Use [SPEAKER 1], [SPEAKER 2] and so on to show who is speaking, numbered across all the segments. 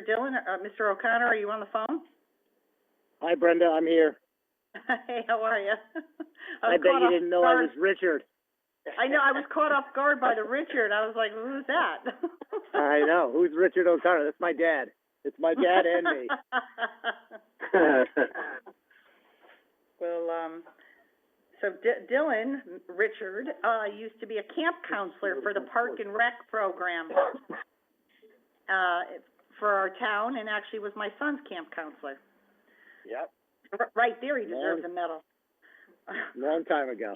[SPEAKER 1] Mr. Dillon, uh, Mr. O'Connor, are you on the phone?
[SPEAKER 2] Hi Brenda, I'm here.
[SPEAKER 1] Hey, how are you?
[SPEAKER 2] I bet you didn't know I was Richard.
[SPEAKER 1] Oh, I know, I was caught off guard by the Richard, I was like, who's that?
[SPEAKER 2] I know, who's Richard O'Connor? That's my dad. It's my dad and me.
[SPEAKER 1] Well, um, so D- Dylan, M- Richard, uh, used to be a camp counselor for the Park and Rec program, uh, for our town, and actually was my son's camp counselor.
[SPEAKER 2] Yep,
[SPEAKER 1] R- Right there, he deserves a medal.
[SPEAKER 2] long time ago.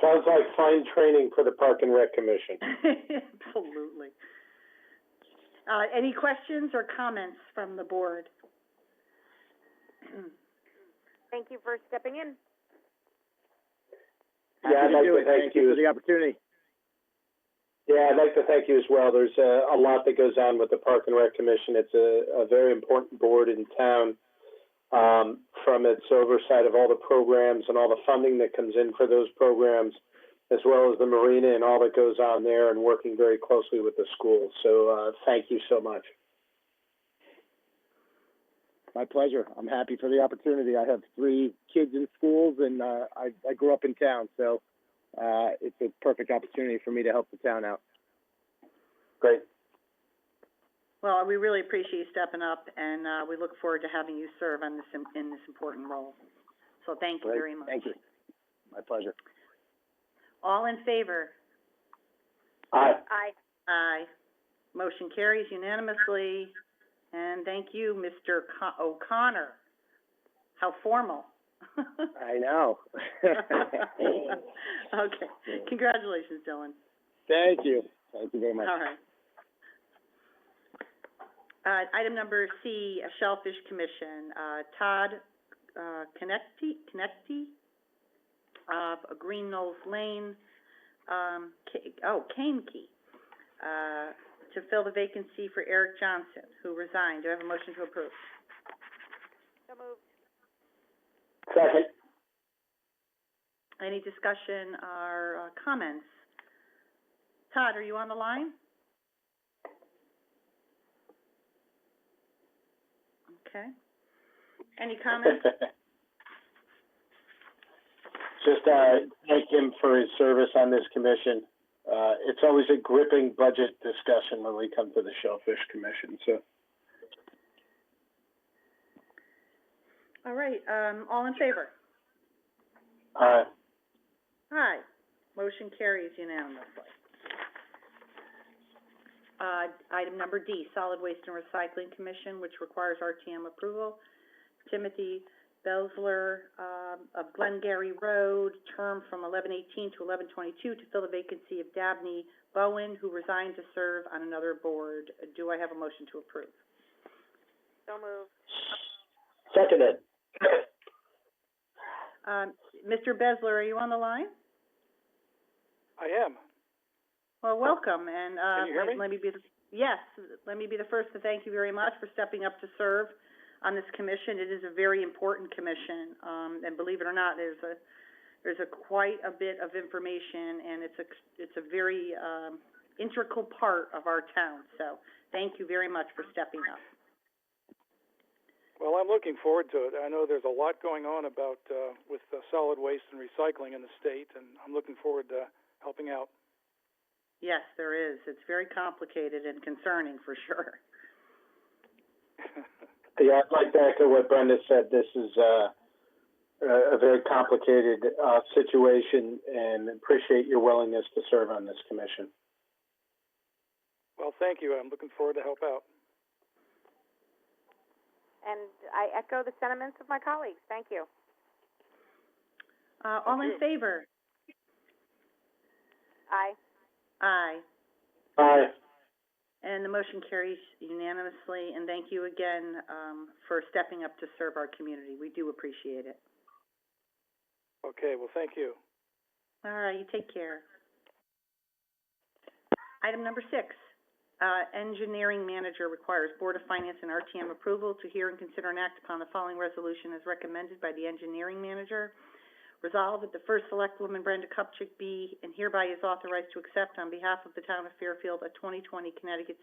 [SPEAKER 3] Sounds like fine training for the Park and Rec Commission.
[SPEAKER 1] Absolutely. Uh, any questions or comments from the board?
[SPEAKER 4] Thank you for stepping in.
[SPEAKER 3] Yeah, I'd
[SPEAKER 2] Happy
[SPEAKER 3] like
[SPEAKER 2] do
[SPEAKER 3] to
[SPEAKER 2] it.
[SPEAKER 3] thank
[SPEAKER 2] you
[SPEAKER 3] you.
[SPEAKER 2] for the opportunity.
[SPEAKER 3] Yeah, I'd like to thank you as well. There's a, a lot that goes on with the Park and Rec Commission. It's a, a very important board in town, um, from its oversight of all the programs and all the funding that comes in for those programs, as well as the marina and all that goes on there, and working very closely with the schools. So uh, thank you so much.
[SPEAKER 2] My pleasure. I'm happy for the opportunity. I have three kids in schools and, uh, I, I grew up in town, so, uh, it's a perfect opportunity for me to help the town out.
[SPEAKER 3] Great.
[SPEAKER 1] Well, we really appreciate you stepping up, and, uh, we look forward to having you serve on this, im- in this important role. So thank you
[SPEAKER 2] Great.
[SPEAKER 1] very much.
[SPEAKER 2] Thank you. My pleasure.
[SPEAKER 1] All in favor?
[SPEAKER 3] Aye.
[SPEAKER 4] Aye.
[SPEAKER 1] Aye. Motion carries unanimously, and thank you, Mr. Co- O'Connor. How formal.
[SPEAKER 2] I know.
[SPEAKER 1] Okay, congratulations, Dylan.
[SPEAKER 2] Thank you. Thank you very much.
[SPEAKER 1] All right. Uh, item number C, a Shellfish Commission, uh, Todd, uh, Connecty, Connecty, of Green Knolls Lane, um, K- oh, Kane Key, uh, to fill the vacancy for Eric Johnson, who resigned. Do I have a motion to approve?
[SPEAKER 4] So moved.
[SPEAKER 3] Second.
[SPEAKER 1] Any discussion or, uh, comments? Todd, are you on the line? Okay. Any comments?
[SPEAKER 3] Just, uh, thank him for his service on this commission. Uh, it's always a gripping budget discussion when we come to the Shellfish Commission, so.
[SPEAKER 1] All right, um, all in favor?
[SPEAKER 3] Uh,
[SPEAKER 1] Aye. Motion carries unanimously. Uh, item number D, Solid Waste and Recycling Commission, which requires RTM approval. Timothy Belzler, um, of Glengarry Road, term from eleven eighteen to eleven twenty-two to fill the vacancy of Dabney Bowen, who resigned to serve on another board. Do I have a motion to approve?
[SPEAKER 4] So moved.
[SPEAKER 3] seconded.
[SPEAKER 1] Um, Mr. Besler, are you on the line?
[SPEAKER 3] I am.
[SPEAKER 1] Well, welcome, and, uh,
[SPEAKER 3] Can you hear
[SPEAKER 1] let- let
[SPEAKER 3] me?
[SPEAKER 1] me be, the yes, let me be the first to thank you very much for stepping up to serve on this commission. It is a very important commission, um, and believe it or not, there's a, there's a quite a bit of information, and it's a, it's a very, um, integral part of our town, so thank you very much for stepping up.
[SPEAKER 5] Well, I'm looking forward to it. I know there's a lot going on about uh, with uh, solid waste and recycling in the state, and I'm looking forward to helping out.
[SPEAKER 1] Yes, there is. It's very complicated and concerning, for sure.
[SPEAKER 3] Yeah, I'd like to echo what Brenda said. This is, uh, a, a very complicated, uh, situation and appreciate your willingness to serve on this commission.
[SPEAKER 5] Well, thank you. I'm looking forward to help out.
[SPEAKER 4] And I echo the sentiments of my colleagues. Thank you.
[SPEAKER 1] Uh, all in
[SPEAKER 5] you.
[SPEAKER 1] favor?
[SPEAKER 4] Aye.
[SPEAKER 1] Aye.
[SPEAKER 3] Aye.
[SPEAKER 1] And the motion carries unanimously, and thank you again, um, for stepping up to serve our community. We do appreciate it.
[SPEAKER 5] Okay. Well, thank you.
[SPEAKER 1] All right, you take care. Item number six, uh, engineering manager requires Board of Finance and RTM approval to hear and consider and act upon the following resolution as recommended by the engineering manager. Resolved that the first selectwoman Brenda Kupchak be and hereby is authorized to accept on behalf of the town of Fairfield a twenty twenty Connecticut